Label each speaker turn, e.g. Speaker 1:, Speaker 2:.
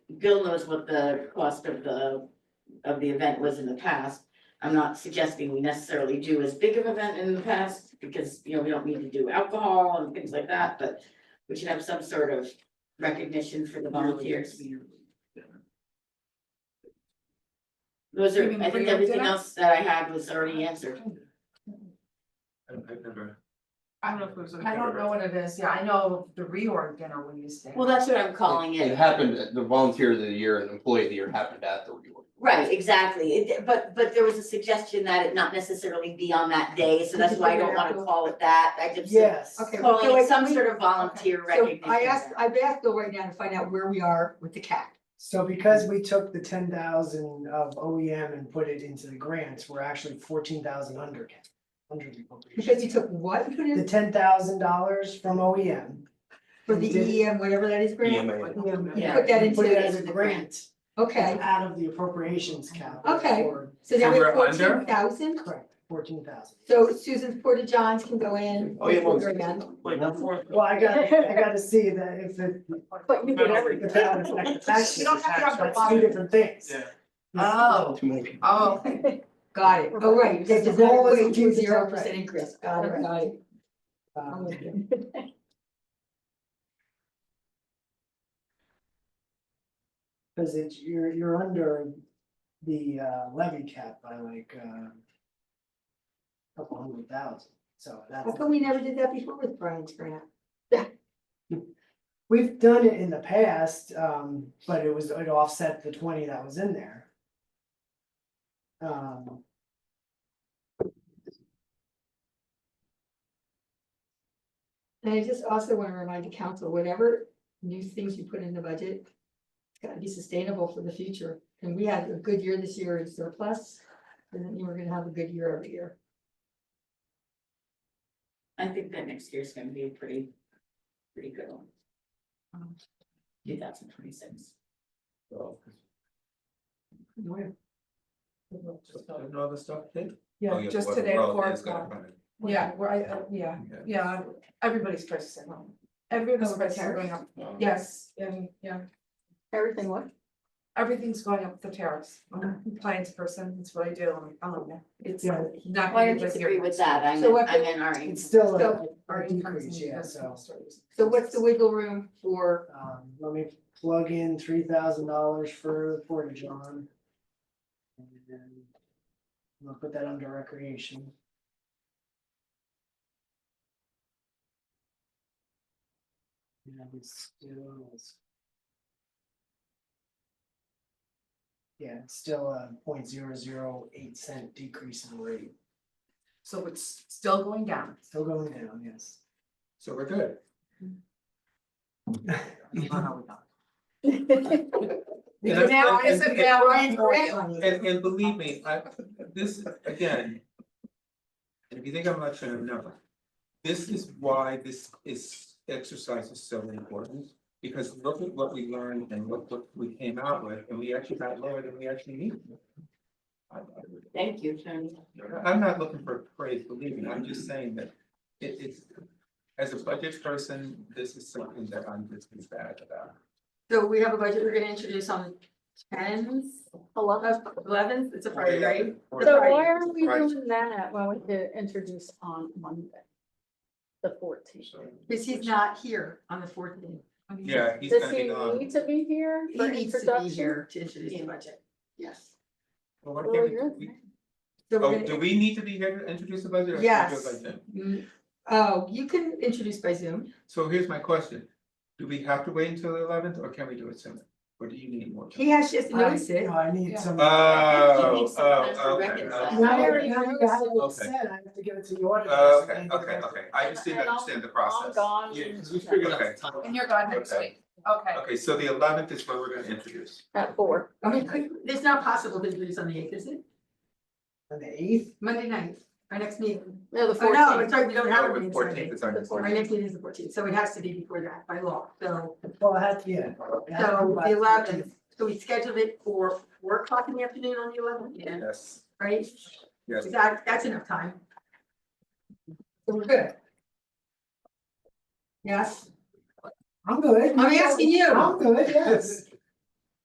Speaker 1: Bill knows what the cost of the, of the event was in the past. I'm not suggesting we necessarily do as big of an event in the past, because, you know, we don't need to do alcohol and things like that, but we should have some sort of recognition for the volunteers. Those are, I think everything else that I had was already answered.
Speaker 2: I've I've never.
Speaker 3: I don't know if it was.
Speaker 4: I don't know what it is, yeah, I know the reorg dinner we used to. have.
Speaker 1: Well, that's what I'm calling
Speaker 5: It
Speaker 1: it.
Speaker 5: happened, at the volunteer of the year and employee of the year happened at the E reorg.
Speaker 1: Right, exactly. It, but, but there was a suggestion that it not necessarily be on that day, so that's why I don't wanna call it that. I just
Speaker 6: Yes.
Speaker 3: Okay.
Speaker 1: calling
Speaker 3: so
Speaker 1: it
Speaker 3: I-
Speaker 1: some sort of volunteer
Speaker 3: So
Speaker 1: recognition.
Speaker 3: I asked, I've asked Bill right now to find out where we are with the cat.
Speaker 6: So because we took the ten thousand of OEM and put it into the grants, we're actually fourteen thousand under. Under the appropriation.
Speaker 3: Because you took what and put
Speaker 6: The
Speaker 3: in
Speaker 6: ten thousand dollars from E OEM.
Speaker 3: for the
Speaker 6: Did-
Speaker 3: EM, whatever that is,
Speaker 5: E
Speaker 3: grant?
Speaker 2: EMA.
Speaker 1: Yeah.
Speaker 3: Put that
Speaker 6: we Put it
Speaker 3: into,
Speaker 6: as a grant,
Speaker 3: okay,
Speaker 6: it's out of the appropriations cap.
Speaker 3: Okay.
Speaker 6: for-
Speaker 3: so now we have
Speaker 2: And we're under?
Speaker 3: fourteen thousand,
Speaker 6: Correct, fourteen thousand.
Speaker 3: so Susan's Porta Johns can go in.
Speaker 2: Oh, yeah, well,
Speaker 3: We're in.
Speaker 2: Wait, one fourth.
Speaker 6: Well, I got, I gotta see that if it.
Speaker 3: But you
Speaker 2: did
Speaker 3: everything.
Speaker 6: If that would affect the taxes,
Speaker 3: You don't have to have the
Speaker 6: that's two different things.
Speaker 2: Yeah.
Speaker 3: Oh,
Speaker 5: Too many people.
Speaker 3: oh, got it, oh, right,
Speaker 6: The
Speaker 3: that does not
Speaker 6: goal is to
Speaker 3: equate to
Speaker 6: keep the
Speaker 3: zero
Speaker 6: tax
Speaker 3: percent
Speaker 6: rate.
Speaker 3: increase, got it, got it. I'm
Speaker 6: Um,
Speaker 3: with you.
Speaker 6: Cause it's, you're, you're under the uh, levy cap by like, uh. Couple hundred thousand, so that's,
Speaker 3: How come we never did that before with Brian's grant?
Speaker 6: we've done it in the past, um, but it was, it offset the twenty that was in there. Um.
Speaker 3: And I just also wanna remind the council, whatever new things you put in the budget. It's gotta be sustainable for the future, and we had a good year this year in surplus, and then you were gonna have a good year every year.
Speaker 1: I think that next year's gonna be a pretty, pretty good one. Two thousand twenty-six.
Speaker 5: So,
Speaker 2: No other stuff, Kate? Oh,
Speaker 7: Yeah,
Speaker 2: yeah,
Speaker 7: just
Speaker 2: well,
Speaker 7: today
Speaker 2: well,
Speaker 7: at four
Speaker 2: it's gonna
Speaker 7: o'clock.
Speaker 2: come in.
Speaker 7: Yeah, where I, uh, yeah,
Speaker 2: Okay.
Speaker 7: yeah, everybody's prices are going, everybody's prices are going up,
Speaker 2: Um,
Speaker 7: yes, and, yeah,
Speaker 3: Everything what?
Speaker 7: everything's going up the tariffs. I'm a compliance person, that's what I do, I'm, I don't know, it's
Speaker 6: Yeah.
Speaker 7: not.
Speaker 1: Why don't you agree with that? I'm,
Speaker 3: So
Speaker 1: in-
Speaker 3: what-
Speaker 1: I'm in our.
Speaker 6: It's still a-
Speaker 7: So,
Speaker 6: a decrease, yeah, so,
Speaker 3: So what's the wiggle room for,
Speaker 6: um, let me plug in three thousand dollars for the Porta John. And then. I'm gonna put that under recreation. Yeah, it's still. it's- Yeah, it's still a point zero zero eight cent decrease in rate,
Speaker 7: So it's still going down.
Speaker 6: still going down, yes.
Speaker 2: So we're good.
Speaker 7: Because now, I said, now, Brian's grant money,
Speaker 2: And and believe me, I, this, again. and If you think I'm not sure, I'm never. This is why this is, exercise is so important, because look at what we learned and look what we came out with, and we actually got lower than we actually needed. I- I-
Speaker 1: Thank you, Tony.
Speaker 2: I'm not looking for praise, believe me, I'm just saying that it it's. As a budget person, this is something that I'm just bad about.
Speaker 3: so we have a budget we're gonna introduce on tenth, eleventh, eleventh, it's a Friday, right?
Speaker 8: So
Speaker 3: Right.
Speaker 8: why are we
Speaker 2: Right.
Speaker 8: doing that when we could introduce on Monday? The fourteenth?
Speaker 3: Cause he's not here on the fourteenth.
Speaker 2: Yeah, he's
Speaker 8: Does
Speaker 2: gonna
Speaker 8: he
Speaker 2: be gone.
Speaker 8: need to be here
Speaker 3: He
Speaker 8: for
Speaker 3: needs to be
Speaker 8: introduction?
Speaker 3: here to introduce the budget, yes.
Speaker 2: Well, what
Speaker 8: Well,
Speaker 2: can we
Speaker 8: you're
Speaker 2: do? We-
Speaker 3: So
Speaker 2: Oh,
Speaker 3: we're
Speaker 2: do
Speaker 3: gonna,
Speaker 2: we need to be here to introduce the budget? or can we do it
Speaker 3: Yes.
Speaker 2: like that?
Speaker 3: Mm, oh, you can introduce by Zoom,
Speaker 2: So here's my question, do we have to wait until the eleventh or can we do it sooner? Or do you need more? time?
Speaker 3: he has, she has to notice
Speaker 6: You
Speaker 3: it,
Speaker 6: know, I need
Speaker 7: Yeah.
Speaker 6: some.
Speaker 1: You need
Speaker 2: Oh,
Speaker 1: some time to
Speaker 2: oh, okay.
Speaker 1: reconcile.
Speaker 2: okay.
Speaker 6: Not
Speaker 8: I
Speaker 6: every,
Speaker 8: already
Speaker 6: not every
Speaker 8: noticed.
Speaker 6: item is
Speaker 2: Okay.
Speaker 6: said, I have to give it to the auditor.
Speaker 2: Oh,
Speaker 6: so they
Speaker 2: Okay,
Speaker 6: can
Speaker 2: okay,
Speaker 6: rec-
Speaker 2: okay, I just didn't
Speaker 8: And I'll-
Speaker 2: understand the
Speaker 8: I'm
Speaker 2: process.
Speaker 8: gone.
Speaker 2: Yeah, Okay.
Speaker 7: and you're gone next
Speaker 2: Okay.
Speaker 7: week, okay.
Speaker 2: Okay, so the eleventh is where we're gonna introduce.
Speaker 8: At four.
Speaker 3: I mean, could, it's not possible to introduce on the eighth, is it?
Speaker 6: On the eighth,
Speaker 3: Monday night, our next meeting, oh, no,
Speaker 8: No, the fourteenth.
Speaker 3: it's right, we don't have a
Speaker 2: Oh,
Speaker 3: meeting
Speaker 2: Fourteenth
Speaker 3: Friday.
Speaker 2: is our next
Speaker 3: Our
Speaker 2: one.
Speaker 3: next meeting is the fourteenth, so it has to be before that by law, so,
Speaker 6: well, I had to, yeah. I had to
Speaker 3: so
Speaker 6: buy-
Speaker 3: the eleventh, so we scheduled it for four o'clock in the afternoon on the eleventh, yeah,
Speaker 2: Yes,
Speaker 3: right?
Speaker 2: yes.
Speaker 3: That, that's enough time,
Speaker 7: So we're good.
Speaker 3: yes,
Speaker 6: I'm good.
Speaker 3: I'm asking you.
Speaker 6: I'm good, yes.